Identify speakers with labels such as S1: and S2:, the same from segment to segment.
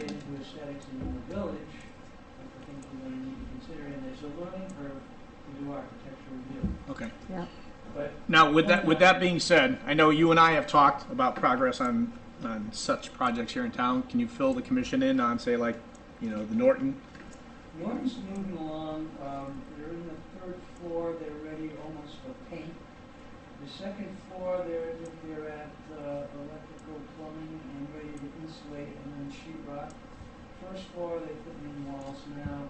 S1: aesthetics in the village, like the things we're gonna need to consider, and there's a learning curve to do architecture review.
S2: Okay.
S3: Yeah.
S1: But
S2: Now, with that, with that being said, I know you and I have talked about progress on, on such projects here in town. Can you fill the commission in on, say, like, you know, the Norton?
S1: Norton's moving along, um, they're in the third floor, they're ready almost for paint. The second floor, they're, they're at, uh, electrical plumbing and ready to insulate and then sheet rock. First floor, they're putting in walls now,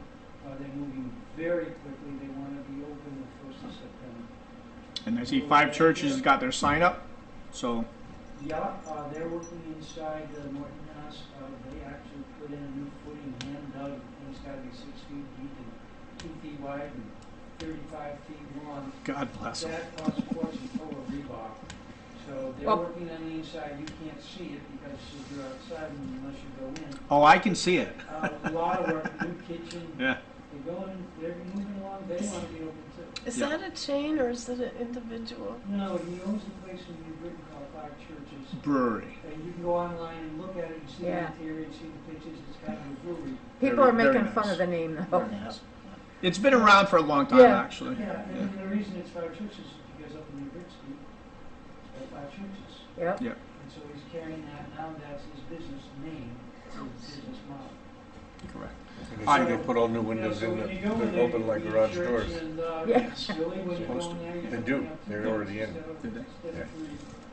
S1: uh, they're moving very quickly, they wanna be open the first of September.
S2: And I see five churches has got their sign up, so,
S1: Yeah, uh, they're working inside the Norton House, uh, they actually put in a new footing, hand dug, and it's gotta be six feet deep and two feet wide and thirty-five feet long.
S2: God bless them.
S1: That costs a fortune total rebar. So they're
S3: Well-
S1: working on the inside, you can't see it because you're outside unless you go in.
S2: Oh, I can see it.
S1: Uh, A lot of work, new kitchen,
S2: Yeah.
S1: they're going, they're moving along, they wanna be open too.
S4: Is
S2: Yeah.
S4: that a chain or is it an individual?
S1: No, he owns a place in New Britain called Five Churches.
S2: Brewery.
S1: And you can go online and look at it and see
S3: Yeah.
S1: the interior, and see the pictures, it's kind of a brewery.
S3: People are
S2: Very- very
S3: making fun
S2: nice.
S3: of the name though.
S2: Very nice. It's been around for a long time,
S3: Oh. Yeah.
S2: actually.
S1: Yeah, and the reason it's Five Churches is because up in New Britain, there are Five Churches.
S3: Yep.
S1: And so he's carrying that, now that's his business name, his business model.
S2: Correct.
S5: And he's gonna put all new windows
S1: You know,
S5: in
S1: so
S5: that,
S1: when you go in
S5: that
S1: there,
S5: open
S1: you
S5: like
S1: can
S5: garage
S1: church
S5: doors.
S1: and, uh,
S3: Yeah.
S1: Really, when you go
S5: Supposed
S1: in there, you
S5: They
S1: don't
S5: do.
S1: have to
S5: They're
S1: go
S5: already in.
S1: instead of-
S2: Did they?
S1: instead of three,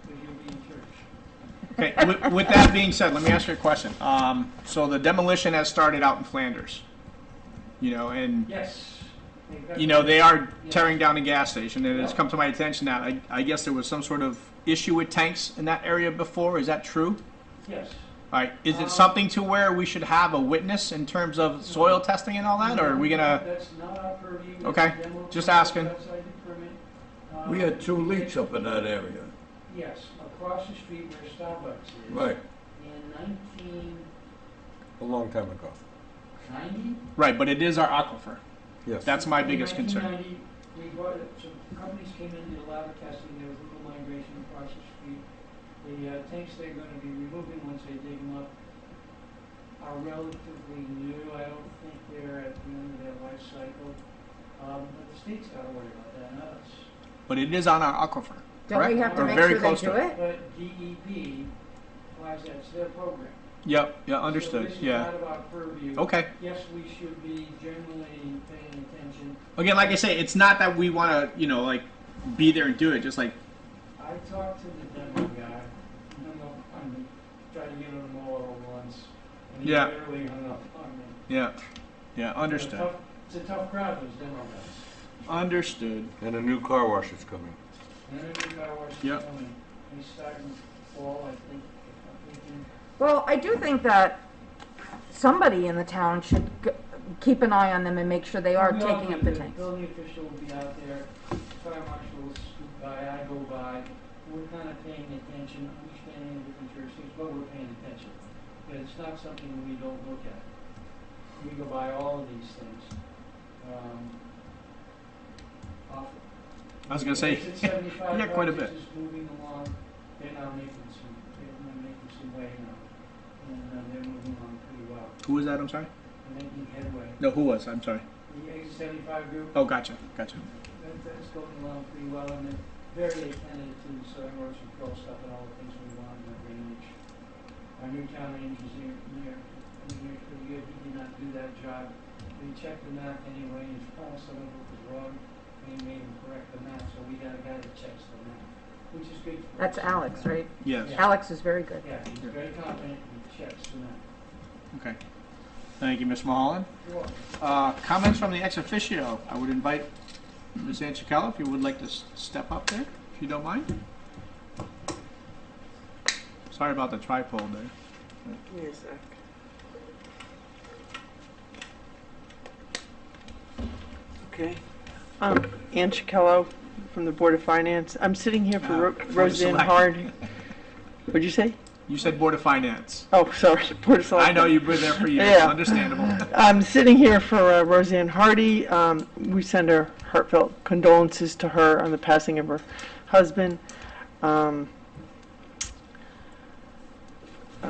S1: but you'll be in church.
S2: Okay, with, with that being said, let me ask you a question. Um, so the demolition has started out in Flanders, you know, and,
S1: Yes. They've got-
S2: you know, they are tearing down a gas station, and it's come to my attention that I, I guess there was some sort of issue with tanks in that area before. Is that true?
S1: Yes.
S2: All right, is
S1: Um,
S2: it something to where we should have a witness in terms of soil testing and all that, or are we gonna?
S1: That's not our purview. It's
S2: Okay,
S1: a demo
S2: just
S1: permit,
S2: asking.
S1: outside the permit. Um,
S5: We had two leaks up in that area.
S1: Yes, across the street where Starbucks is.
S5: Right,
S1: In nineteen
S5: a long time ago.
S1: ninety?
S2: Right, but it is our aquifer.
S5: Yes.
S2: That's my biggest concern.
S1: 1990, we bought it, so companies came in, did a lot of testing, there was little migration across the street. The uh, tanks they're gonna be removing once they dig them up are relatively new, I don't think they're at the end of their life cycle. Um, but the state's gotta worry about that, not us.
S2: But it is on our aquifer.
S3: Don't
S2: Correct.
S3: we have to
S1: Or
S3: make
S2: very
S3: sure they
S2: close
S3: do
S2: to
S3: it?
S1: But E DEP, why is that, it's their program.
S2: Yep, yeah,
S1: So
S2: understood.
S1: this is
S2: Yeah.
S1: not about purview.
S2: Okay.
S1: Yes, we should be generally paying attention.
S2: Again, like I say, it's not that we want to, you know, like be there and do it. Just like
S1: I talked to the demo guy, hung up on me, tried to get him all at once, and he
S2: Yeah.
S1: barely hung up on me.
S2: yeah, yeah,
S1: It's a
S2: understood,
S1: tough- It's a tough crowd, those demo guys.
S2: understood.
S5: And a new car wash is coming.
S1: And then the guy was
S2: Yeah.
S1: coming, he's starting to fall, I think, I'm thinking,
S3: Well, I do think that somebody in the town should g- keep an eye on them and make sure they are
S1: We all
S3: taking
S1: do.
S3: up the
S1: The
S3: tanks.
S1: Building official will be out there, fire marshals scoot by, I go by, we're kind of paying attention, understanding the different jurisdictions, but we're paying attention. But it's not something we don't look at. We go by all of these things. Um, Awful.
S2: I was gonna say, yeah, quite a bit.
S1: It's moving along, they're now making some, they're now making some way now. And uh, they're moving along pretty well,
S2: Who was that? I'm sorry.
S1: they're making headway.
S2: No, who was? I'm sorry.
S1: The exit seventy-five group
S2: Oh, gotcha, gotcha.
S1: that, that's going along pretty well, and they're very attentive to soil erosion control stuff and all the things we want in the drainage. Our new town engineer, engineer, engineer for the year, he did not do that job. We checked the map anyway, and found some of it was wrong, and he made him correct the map, so we got a guy that checks the map, which is good for us.
S3: That's Alex, right?
S2: Yes.
S1: Yeah.
S3: Alex is very good.
S1: Yeah, he's
S2: Yeah.
S1: very competent, he checks the map.
S2: Okay. Thank you, Ms. Mulholland.
S1: You're welcome.
S2: Uh, comments from the ex officio. I would invite Ms. Anchicala if you would like to s- step up there, if you don't mind. Sorry about the tripod there.
S4: Music. Okay. Um, Ann Chikello from the Board of Finance. I'm sitting here for
S2: Uh,
S4: Ro-
S2: Board of
S4: Roseanne
S2: Select-
S4: Hard. What'd you say?
S2: You said Board of Finance.
S4: Oh, sorry, Board of Selectmen.
S2: I know you've been there for years.
S4: Yeah.
S2: Understandable.
S4: I'm sitting here for uh, Roseanne Hardy. Um, we send our heartfelt condolences to her on the passing of her husband. Um, uh,